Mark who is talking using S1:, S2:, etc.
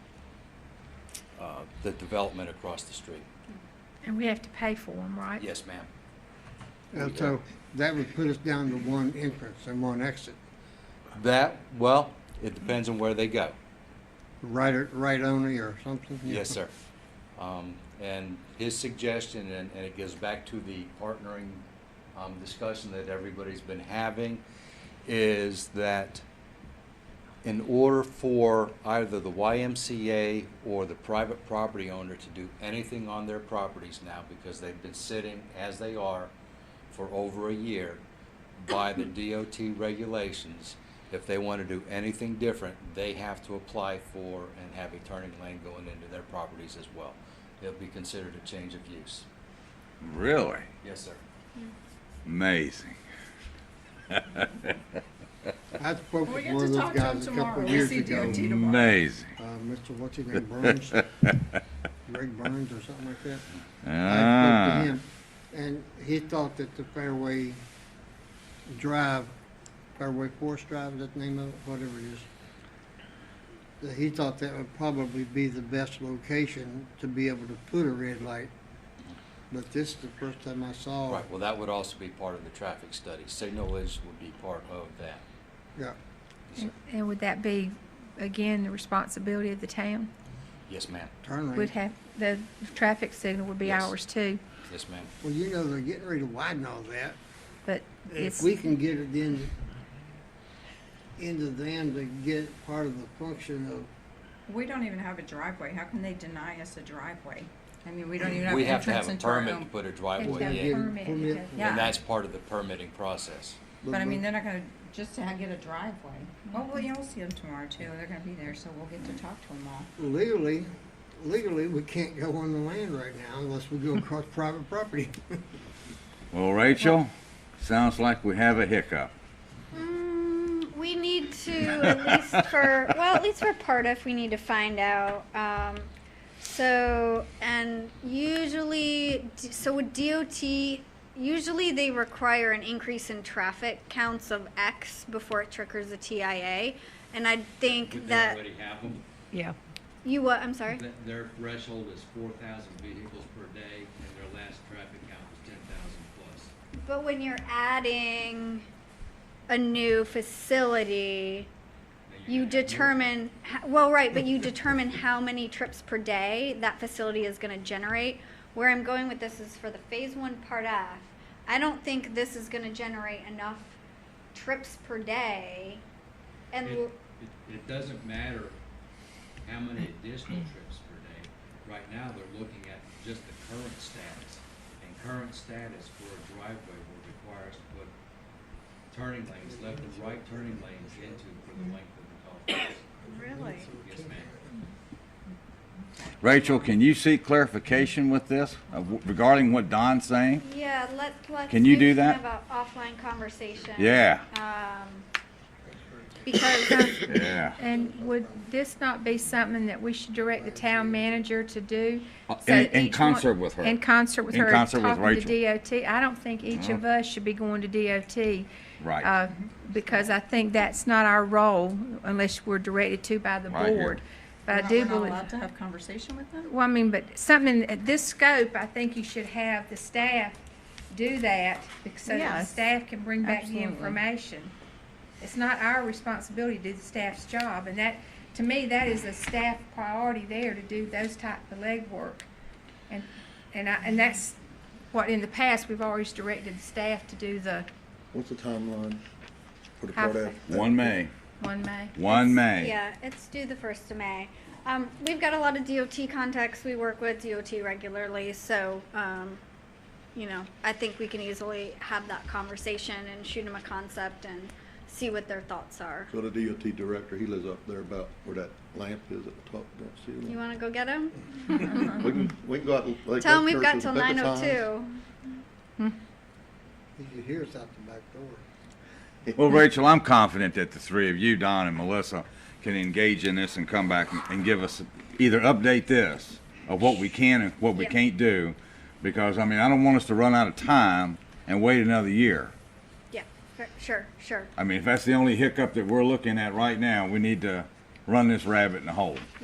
S1: uh, the development across the street.
S2: And we have to pay for them, right?
S1: Yes, ma'am.
S3: And so that would put us down to one entrance and one exit,
S1: That, well, it depends on where they go.
S3: right, right only or something?
S1: Yes, sir. Um, and his suggestion, and, and it goes back to the partnering, um, discussion that everybody's been having, is that in order for either the YMCA or the private property owner to do anything on their properties now, because they've been sitting as they are for over a year by the DOT regulations, if they want to do anything different, they have to apply for and have a turning lane going into their properties as well. It'll be considered a change of use.
S4: Really?
S1: Yes, sir.
S4: Amazing.
S3: I spoke
S5: We
S3: with
S5: get
S3: one
S5: to
S3: of those
S5: talk to him
S3: guys a
S5: tomorrow.
S3: couple of
S5: We'll
S3: years
S5: see
S3: ago.
S5: DOT tomorrow.
S4: Amazing.
S3: Uh, Mr. what's his name, Burns? Greg Burns or something like that. I spoke
S4: Ah,
S3: to him, and he thought that the Fairway Drive, Fairway Forest Drive, is that the name of it, whatever it is, that he thought that would probably be the best location to be able to put a red light. But this is the first time I saw,
S1: Right, well, that would also be part of the traffic study. Signalage would be part of that.
S3: yeah,
S2: And- And would that be, again, the responsibility of the town?
S1: Yes, ma'am.
S3: turn
S2: Would
S3: lane.
S2: have, the traffic signal would be
S1: Yes.
S2: ours too,
S1: Yes, ma'am.
S3: Well, you know, they're getting ready to widen all that.
S2: but
S3: If
S2: it's,
S3: we can get it in, into them to get part of the function of
S5: We don't even have a driveway. How can they deny us a driveway? I mean, we don't even have
S1: We have to have
S5: entrance
S1: a
S5: into our
S1: permit to
S5: own.
S1: put a
S2: Have to
S1: driveway
S2: have
S1: in,
S2: permit,
S3: permit.
S2: okay.
S5: Yeah.
S1: and that's part of the permitting process.
S5: But I mean, they're not gonna, just
S2: Mm-hmm.
S5: to get a driveway. Oh, well, you'll see them tomorrow too. They're gonna be there, so we'll get to talk to them all.
S3: legally, legally, we can't go on the land right now unless we go across private property.
S4: well, Rachel, sounds like we have a hiccup.
S6: Mm, we need to at least for well at least for part of we need to find out um, so and usually d- so with dot usually they require an increase in traffic counts of x before it triggers the tia and i think that
S7: have them.
S2: yeah.
S6: you what i'm sorry
S7: Th- Their threshold is four thousand vehicles per day, and their last traffic count was ten thousand plus.
S6: But when you're adding a new facility,
S7: Now
S6: you
S7: gotta have more.
S6: determine, ho- well, right, but you determine how many trips per day that facility is gonna generate. Where I'm going with this is for the phase one part F, I don't think this is gonna generate enough trips per day. And,
S7: It,
S6: l-
S7: it- it doesn't matter how many additional
S6: Mm.
S7: trips per day. Right now, they're looking at just the current status. And current status for a driveway will require us to put turning lanes, left and right turning lanes into for
S6: Mm.
S7: the length of the golf course.
S5: Really?
S7: Yes, ma'am.
S4: Rachel, can you seek clarification with this uh, w- regarding what Don's saying?
S6: yeah, let, let's.
S4: Can you
S6: maybe
S4: do that?
S6: Have a offline conversation.
S4: Yeah,
S6: Um, because
S4: yeah.
S2: And would this not be something that we should direct the town manager to do?
S4: Uh,
S2: So
S4: in-
S2: that
S4: in
S2: each one-
S4: concert with her.
S2: In concert with
S4: In
S2: her,
S4: concert with
S2: talking to
S4: Rachel. Uh-huh.
S2: DOT. I don't think each of us should be going to DOT.
S4: Right.
S2: uh, Because I think that's not our role unless we're directed to by the
S4: Right here.
S2: board.
S5: We're
S2: But I
S5: not-
S2: do
S5: We're not
S2: believe,
S5: allowed to have conversation with them?
S2: well, I mean, but something at this scope, I think you should have the staff do that bec- so that the
S5: Yes,
S2: staff can bring back the
S5: absolutely.
S2: information. It's not our responsibility to do the staff's job, and that, to me, that is a staff priority there to do those type of legwork. And, and I, and that's what in the past, we've always directed the staff to do the
S8: What's the timeline for the
S2: How
S8: part F?
S4: One May,
S2: one May.
S4: one May.
S6: Yeah, it's due the first of May. Um, we've got a lot of DOT contacts. We work with DOT regularly, so, um, you know, I think we can easily have that conversation and shoot them a concept and see what their thoughts are.
S8: So the DOT director, he lives up there about where that lamp is at the top of that
S6: You
S8: ceiling.
S6: wanna go get them?
S8: We can, we can go out. and, like,
S6: Tell them
S8: that
S6: we've got
S8: church
S6: till
S8: with the
S6: nine
S8: picket
S6: oh
S8: signs.
S6: two.
S3: You can hear us out the back door.
S4: Well, Rachel, I'm confident that the three of you, Don and Melissa, can engage in this and come back and- and give us, either update this of what we can and what we
S6: Yep.
S4: can't do. Because, I mean, I don't want us to run out of time and wait another year.
S6: Yeah, sure, sure, sure.
S4: I mean, if that's the only hiccup that we're looking at right now, we need to run this rabbit in the hole.